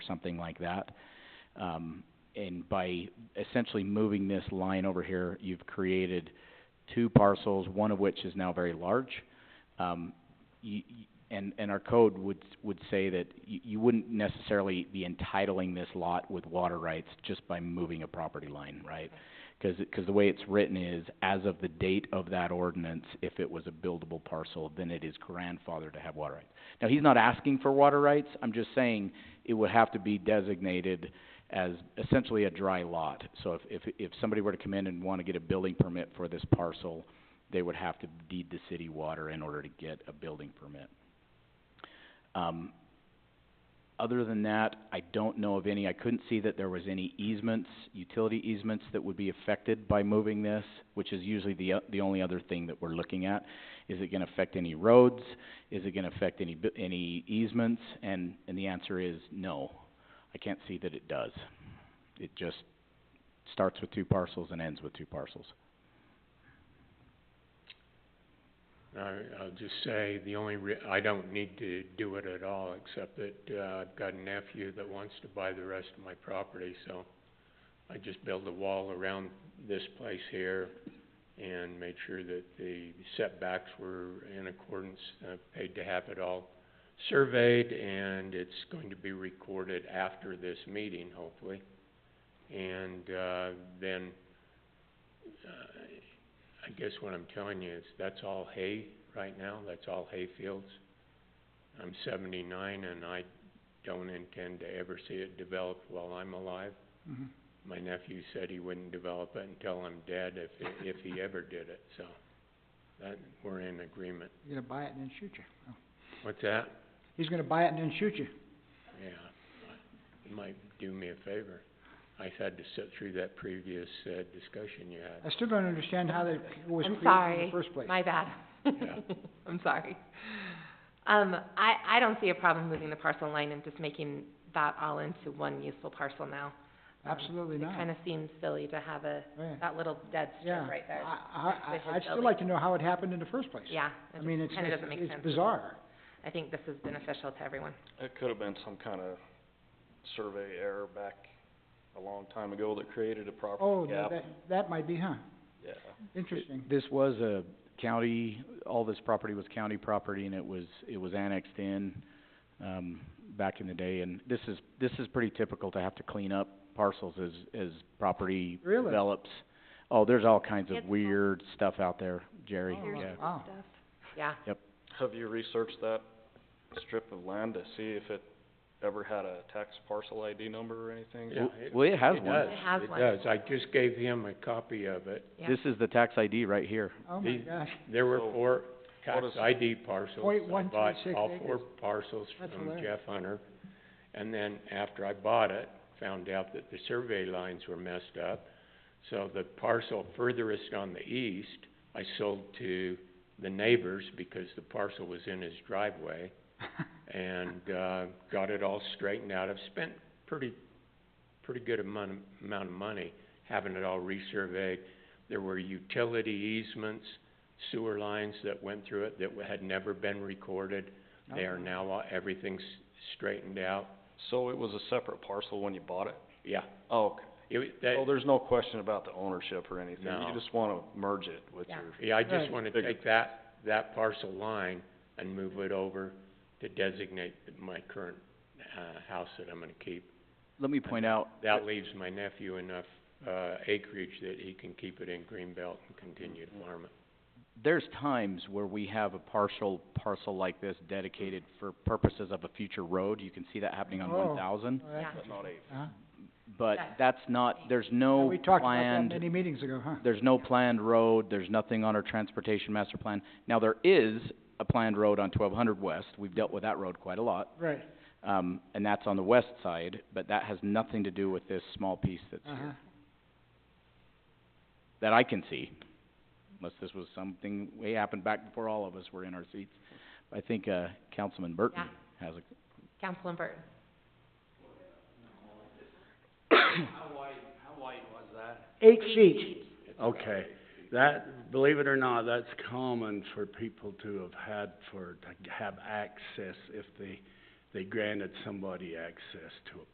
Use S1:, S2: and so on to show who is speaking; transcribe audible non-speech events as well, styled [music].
S1: something like that. Um, and by essentially moving this line over here, you've created two parcels, one of which is now very large. Um, you, you- and, and our code would, would say that you, you wouldn't necessarily be entitling this lot with water rights just by moving a property line, right? Cause, it- cause the way it's written is, as of the date of that ordinance, if it was a buildable parcel, then it is grandfathered to have water rights. Now, he's not asking for water rights, I'm just saying it would have to be designated as essentially a dry lot. So if, if, if somebody were to come in and wanna get a building permit for this parcel, they would have to deed the city water in order to get a building permit. Um, other than that, I don't know of any, I couldn't see that there was any easements, utility easements that would be affected by moving this, which is usually the, o- the only other thing that we're looking at. Is it gonna affect any roads? Is it gonna affect any, bu- any easements? And, and the answer is no. I can't see that it does. It just starts with two parcels and ends with two parcels.
S2: I, I'll just say, the only re- I don't need to do it at all, except that, uh, I've got a nephew that wants to buy the rest of my property, so I just build a wall around this place here and made sure that the setbacks were in accordance, uh, paid to have it all surveyed, and it's going to be recorded after this meeting, hopefully. And, uh, then, uh, I guess what I'm telling you is, that's all hay right now, that's all hay fields. I'm seventy-nine and I don't intend to ever see it developed while I'm alive. My nephew said he wouldn't develop it until I'm dead if, if he ever did it, so, that, we're in agreement.
S3: He's gonna buy it and then shoot you. Oh.
S2: What's that?
S3: He's gonna buy it and then shoot you.
S2: Yeah, it might do me a favor. I had to sit through that previous, uh, discussion you
S3: I
S2: had.
S3: still don't understand how that was
S4: I'm
S3: created in
S4: sorry,
S3: the first place.
S4: my bad.
S2: Yeah.
S4: [laughs] I'm sorry. Um, I, I don't see a problem moving the parcel line and just making that all into one useful parcel now. Um,
S3: Absolutely not.
S4: It kinda seems silly to have a,
S3: Oh, yeah.
S4: that little dead
S3: Yeah.
S4: strip right there.
S3: I,
S4: Suspicious
S3: I, I'd still
S4: building.
S3: like to know how it happened in the first place.
S4: Yeah,
S3: I mean,
S4: it
S3: it's,
S4: kinda doesn't make
S3: it's,
S4: sense.
S3: it's bizarre.
S4: I think this is beneficial to everyone.
S5: It could have been some kind of survey error back a long time ago that created a
S3: Oh,
S5: property
S3: no,
S5: gap.
S3: that, that might be, huh?
S5: Yeah.
S3: Interesting.
S1: This was a county, all this property was county property and it was, it was annexed in, um, back in the day. And this is, this is pretty typical to have to clean up parcels as, as property
S3: Really?
S1: develops. Oh, there's all kinds
S4: It's
S1: of
S4: all-
S1: weird stuff out there, Jerry,
S3: Oh,
S1: yeah.
S3: Wow.
S4: Yeah,
S5: Have you researched that strip of land to see if it ever had a tax parcel ID number or anything?
S2: Yeah, it-
S1: Well, it has
S2: It
S1: one.
S2: does,
S4: It has
S2: it
S4: one.
S2: does. I just gave him a copy of it.
S4: yeah.
S1: This is the tax ID right here.
S3: Oh, my
S2: These-
S3: gosh.
S2: There were
S5: So,
S2: four tax
S5: is-
S2: ID parcels.
S3: Point one
S2: I
S3: three
S2: bought
S3: six
S2: all
S3: acres.
S2: four parcels
S3: That's
S2: from
S3: hilarious.
S2: Jeff Hunter. And then after I bought it, found out that the survey lines were messed up. So the parcel furthest on the east, I sold to the neighbors because the parcel was in his
S3: [laughs]
S2: driveway. And, uh, got it all straightened out. I've spent pretty, pretty good amount, amount of money having it all resurveyed. There were utility easements, sewer lines that went through it that had never been recorded. They are now, all- everything's straightened out.
S5: So it was a separate parcel when you bought it?
S2: Yeah,
S5: Oh, okay.
S2: it, was-
S5: Oh,
S2: that,
S5: there's no question about the ownership or anything.
S2: No.
S5: You just wanna merge it with
S4: Yeah.
S5: your,
S2: yeah, I just
S3: Right.
S2: wanna
S5: Bigger.
S2: take that, that parcel line and move it over to designate my current, uh, house that I'm gonna keep.
S1: Let me point out,
S2: That leaves my nephew enough, uh, acreage that he can keep it in Greenbelt and continue to farm it.
S1: there's times where we have a partial parcel like this dedicated for purposes of a future road. You can see that happening on
S3: Oh.
S1: one thousand.
S3: Oh, that's-
S4: Yeah.
S5: that's not a,
S3: Uh-huh.
S1: But
S4: That's
S1: that's not, there's
S3: Yeah,
S1: no
S3: We talked about that
S1: planned,
S3: many meetings ago, huh?
S1: there's no planned road, there's nothing on our transportation master plan. Now, there is a planned road on twelve hundred west, we've dealt with that road quite a lot,
S3: Right.
S1: um, and that's on the west side, but that has nothing to do with this small piece that's
S3: Uh-huh.
S1: here, that I can see. Unless this was something, way happened back before all of us were in our seats. I think, uh, Councilman Burton has a
S4: Councilman Burton.
S6: Eight feet. Okay, that, believe it or not, that's common for people to have had for, to have access if they, they granted somebody access to a